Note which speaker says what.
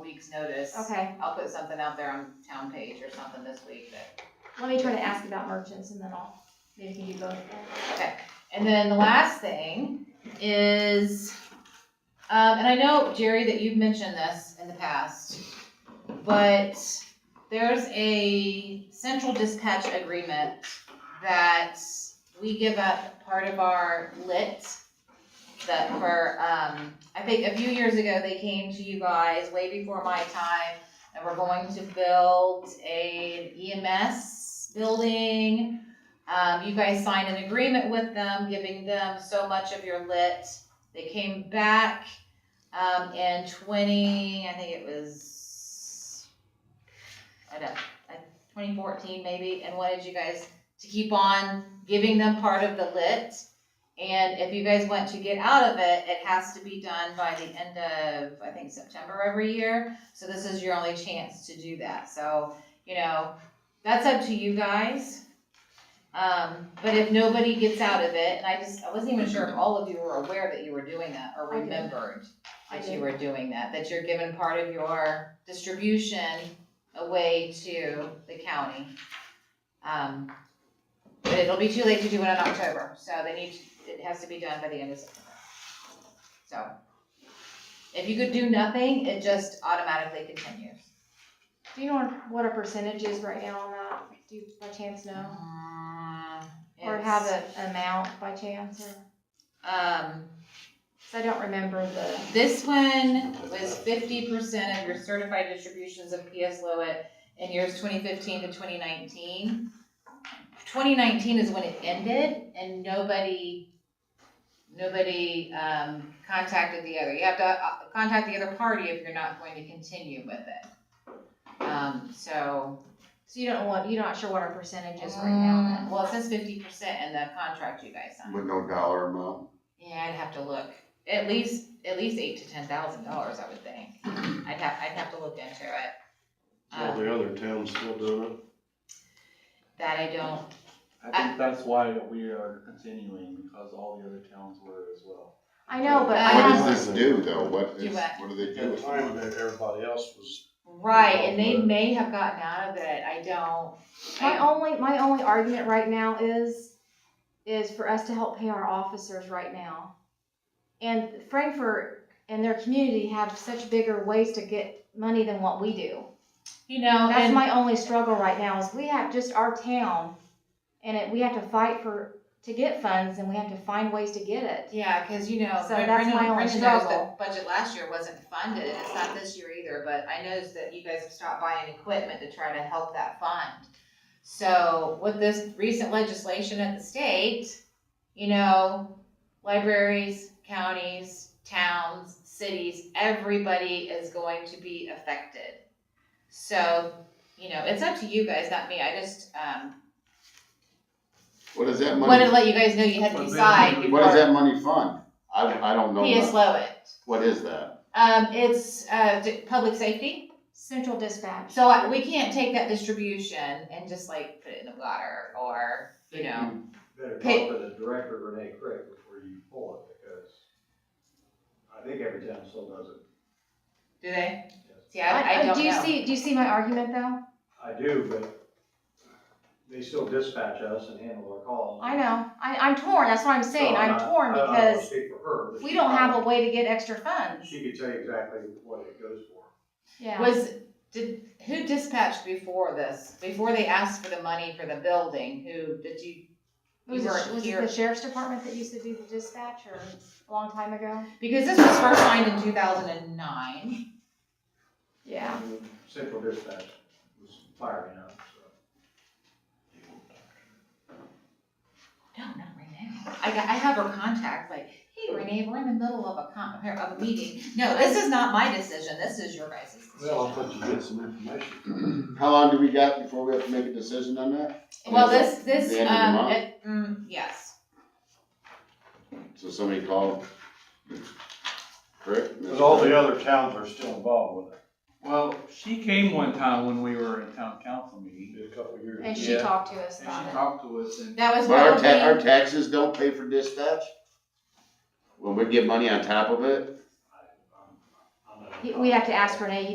Speaker 1: week's notice.
Speaker 2: Okay,
Speaker 1: I'll put something out there on town page or something this week that,
Speaker 2: let me try to ask about merchants and then I'll, maybe we can do both. of them.
Speaker 1: okay. And then the last thing is, um, and I know, Jerry, that you've mentioned this in the past, but there's a central dispatch agreement that we give up part of our lit that for, um, I think a few years ago, they came to you guys way before my time, and we're going to build a EMS building. Um, you guys signed an agreement with them, giving them so much of your lit. They came back, um, in twenty, I think it was, I don't, twenty fourteen maybe, and wanted you guys to keep on giving them part of the lit. And if you guys want to get out of it, it has to be done by the end of, I think, September every year. So this is your only chance to do that. So, you know, that's up to you guys. Um, but if nobody gets out of it, and I just, I wasn't even sure if all of you were aware that you were doing that or
Speaker 2: I did.
Speaker 1: remembered
Speaker 2: I
Speaker 1: that
Speaker 2: did.
Speaker 1: you were doing that, that you're giving part of your distribution away to the county. Um, but it'll be too late to do it in October, so they need, to- it has to be done by the end of September. So, if you could do nothing, it just automatically continues.
Speaker 2: Do you know what- what a percentage is right now on that? Do you by chance know? Or have
Speaker 1: Mm, It's,
Speaker 2: an amount by chance or?
Speaker 1: Um,
Speaker 2: Cause I don't remember the,
Speaker 1: This one was fifty percent of your certified distributions of PS Lowit in years twenty fifteen to twenty nineteen. Twenty nineteen is when it ended and nobody, nobody, um, contacted the other. You have to, uh, contact the other party if you're not going to continue with it. Um, so.
Speaker 2: so you don't want, you're not sure what our percentage is right now on that?
Speaker 1: Well, it says fifty percent in the contract you guys signed.
Speaker 3: With no dollar amount,
Speaker 1: Yeah, I'd have to look. At least, at least eight to ten thousand dollars, I would think. I'd have, I'd have to look into it.
Speaker 4: All
Speaker 1: Um,
Speaker 4: the other towns still doing it.
Speaker 1: that I don't,
Speaker 5: I think
Speaker 1: Uh,
Speaker 5: that's why we are continuing, because all the other towns were as well.
Speaker 2: I know, but
Speaker 1: Uh,
Speaker 2: I
Speaker 3: what
Speaker 2: don't,
Speaker 3: does this do though, what is,
Speaker 1: Do what?
Speaker 3: what do they do
Speaker 4: At the
Speaker 3: with
Speaker 4: time
Speaker 3: it?
Speaker 4: that everybody else was,
Speaker 1: right, and they may have gotten out of it. I don't.
Speaker 2: My
Speaker 1: I-
Speaker 2: only, my only argument right now is, is for us to help pay our officers right now. And Frankfurt and their community have such bigger ways to get money than what we do.
Speaker 1: You know,
Speaker 2: That's
Speaker 1: and-
Speaker 2: my only struggle right now is we have just our town and it, we have to fight for, to get funds and we have to find ways to get it.
Speaker 1: Yeah, because you know,
Speaker 2: So
Speaker 1: Brendan,
Speaker 2: that's my only
Speaker 1: Brendan knows
Speaker 2: struggle.
Speaker 1: that budget last year wasn't funded, and it's not this year either, but I noticed that you guys have stopped buying equipment to try to help that fund. So with this recent legislation at the state, you know, libraries, counties, towns, cities, everybody is going to be affected. So, you know, it's up to you guys, not me, I just, um,
Speaker 3: What does that
Speaker 1: wanted to
Speaker 3: money,
Speaker 1: let you guys know you had to
Speaker 5: But then-
Speaker 1: decide
Speaker 3: what does
Speaker 1: before
Speaker 3: that money fund? I, I don't know,
Speaker 1: PS
Speaker 3: what-
Speaker 1: Lowit.
Speaker 3: what is that?
Speaker 1: Um, it's, uh, d- public safety,
Speaker 2: Central dispatch.
Speaker 1: so I- we can't take that distribution and just like put it in the water or, you know.
Speaker 6: Better
Speaker 1: Pay-
Speaker 6: talk to the director Renee Craig before you pull it, because I think every town still does it.
Speaker 1: Do they?
Speaker 6: Yes.
Speaker 1: See, I, I don't
Speaker 2: Do you
Speaker 1: know.
Speaker 2: see, do you see my argument though?
Speaker 6: I do, but they still dispatch us and handle our calls.
Speaker 2: I know, I, I'm torn, that's what I'm
Speaker 6: So
Speaker 2: saying, I'm
Speaker 6: not-
Speaker 2: torn
Speaker 6: I don't wanna
Speaker 2: because
Speaker 6: Speak for her. but
Speaker 2: we
Speaker 6: she
Speaker 2: don't have a
Speaker 6: probably-
Speaker 2: way to get extra funds.
Speaker 6: She could tell you exactly what it goes for.
Speaker 2: Yeah.
Speaker 1: Was, did, who dispatched before this, before they asked for the money for the building, who, did you?
Speaker 2: Was
Speaker 1: You
Speaker 2: it,
Speaker 1: weren't
Speaker 2: was it
Speaker 1: here.
Speaker 2: the sheriff's department that used to do the dispatch or a long time ago?
Speaker 1: Because this was first signed in two thousand and nine,
Speaker 2: Yeah.
Speaker 6: Central dispatch was firing up, so.
Speaker 1: no, not Renee, I got, I have her contact, like, hey Renee, we're in the middle of a con, of a meeting, no, this is not my decision, this is your guys' decision.
Speaker 4: well, I thought you get some information.
Speaker 3: How long do we got before we have to make a decision on that?
Speaker 1: Well,
Speaker 3: Is
Speaker 1: this, this,
Speaker 3: the end of the
Speaker 1: um,
Speaker 3: month?
Speaker 1: it- mm, yes,
Speaker 3: So somebody called, correct?
Speaker 4: Cause all the other towns are still involved with it,
Speaker 5: Well, she came one time when we were in town council meeting,
Speaker 4: did a couple of years.
Speaker 2: And she
Speaker 5: Yeah.
Speaker 2: talked to us
Speaker 5: and she
Speaker 2: about it.
Speaker 5: talked to us and,
Speaker 1: that was
Speaker 3: But our
Speaker 1: probably,
Speaker 3: ta- our taxes don't pay for dispatch? When we get money on top of it?
Speaker 6: I- I'm- I'm not-
Speaker 2: He- We have to ask Renee, he